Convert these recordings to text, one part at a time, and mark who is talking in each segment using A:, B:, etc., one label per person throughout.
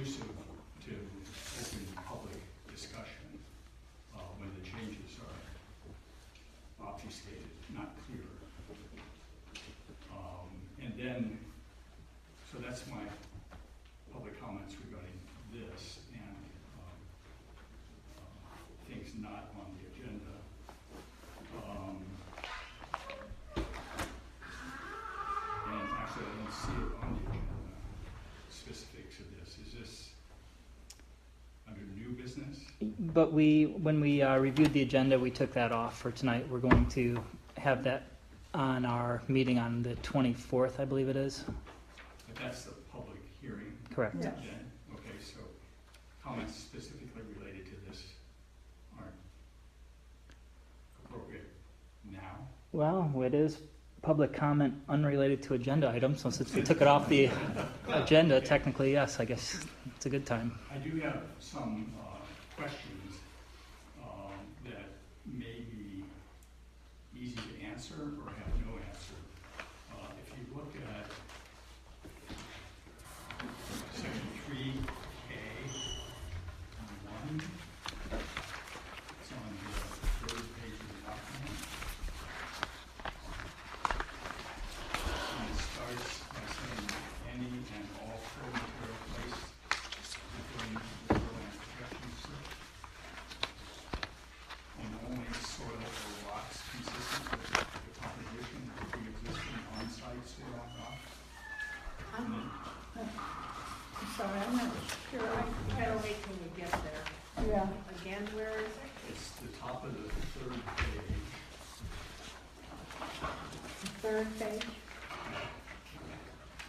A: uh, Um, um, uh, Um,
B: but we, when we uh, reviewed the agenda, we took that off for tonight. We're going to have that on our meeting on the 24th, I believe it is.
A: But that's the public hearing
B: Correct.
C: Yeah.
A: then? Okay, so comments specifically related to this aren't appropriate now?
B: Well, it is public comment unrelated to agenda items, so since we took it off the agenda, technically, yes, I guess it's a good time.
A: I do have some uh, questions um, that may be easy to answer or have no answer. Uh, If you look at section three K one, it's on the third page of the document. And it starts by saying, any and all pro material placed within the shoreline protection strip and only soil or rocks consistent with the composition of the existing on-site soil and rock.
C: I'm I'm sorry, I'm not sure. I-
D: Gotta wait till we get there.
C: Yeah,
D: Again, where is it?
A: It's the top of the third page.
C: the third page.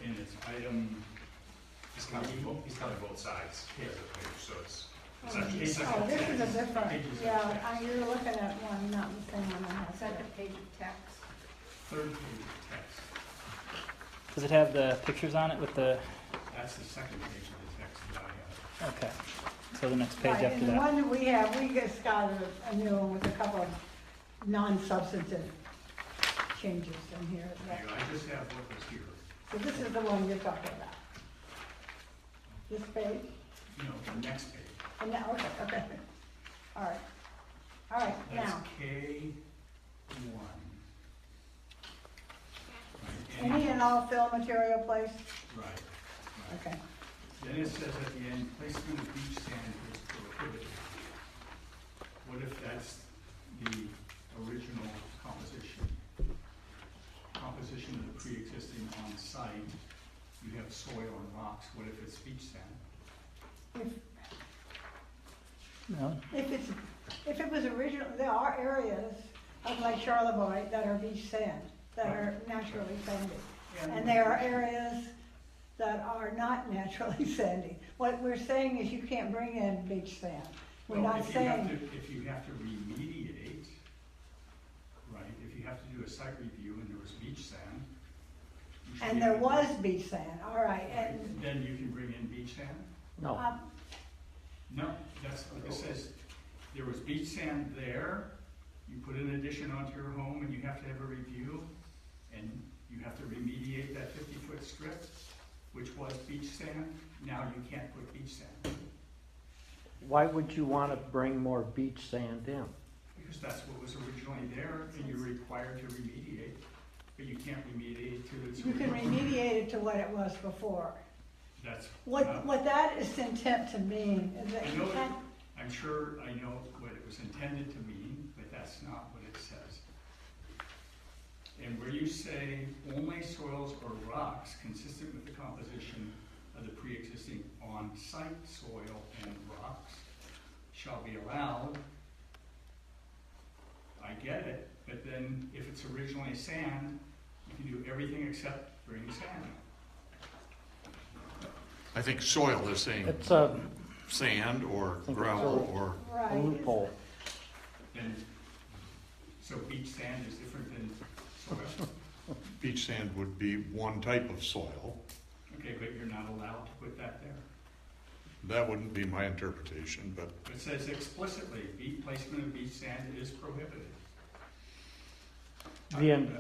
A: And it's item,
E: He's counting both, he's counting both sides of the page, so it's, it's
C: Oh,
E: actually,
A: It's like a
C: this is a
A: text.
C: different,
A: Pages of
C: yeah,
A: text.
C: I- you're looking at one, not the same one I have.
D: Second page of text.
A: third page of text.
B: Does it have the pictures on it with the,
A: That's the second page of the text that I have.
B: okay, so the next page
C: Right,
B: after
C: and the
B: that?
C: one that we have, we just got a- a new one with a couple of non-substantive changes in here.
A: Hang on, I just have what was here.
C: So this is the one you're talking about. This page?
A: You know, the next page.
C: And now, okay, okay. All right. All right,
A: That's
C: now,
A: K one.
C: any and all fill material placed?
A: Right, right.
C: Okay.
A: Then it says at the end, placement of beach sand is prohibited. What if that's the original composition? Composition of the pre-existing on-site, you have soil and rocks, what if it's beach sand?
C: If,
B: No?
C: if it's, if it was original, there are areas of Lake Charlevoix that are beach sand, that are naturally sandy. And there are areas that are not naturally sandy. What we're saying is you can't bring in beach sand. We're
A: Well,
C: not
A: if you have
C: saying,
A: to- If you have to remediate, right, if you have to do a site review and there was beach sand. you should be
C: and there
A: able to-
C: was beach sand, all right, and,
A: Then you can bring in beach sand?
B: No.
C: um,
A: No, that's, it says, there was beach sand there, you put an addition onto your home and you have to have a review, and you have to remediate that fifty-foot strip, which was beach sand, now you can't put beach sand,
F: Why would you want to bring more beach sand in?
A: because that's what was originally there, and you're required to remediate, but you can't remediate to its.
C: you can
A: original-
C: remediate it to what it was before.
A: That's.
C: What,
A: not-
C: what that is intent to mean is that
A: I
C: you
A: know,
C: can't,
A: it- I'm sure I know what it was intended to mean, but that's not what it says. And where you say only soils or rocks consistent with the composition of the pre-existing on-site soil and rocks shall be allowed, I get it, but then if it's originally sand, you can do everything except bring sand.
G: I think soil is saying
F: It's a
G: sand or
F: it's
G: gravel or,
C: right.
F: loophole.
A: And so beach sand is different than soil.
G: beach sand would be one type of soil.
A: Okay, but you're not allowed to put that there.
G: That wouldn't be my interpretation, but
A: It says explicitly, beach placement of beach sand is prohibited.
F: The end.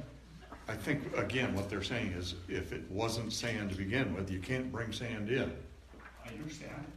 G: I think, again, what they're saying is if it wasn't sand to begin with, you can't bring sand in.
A: I understand.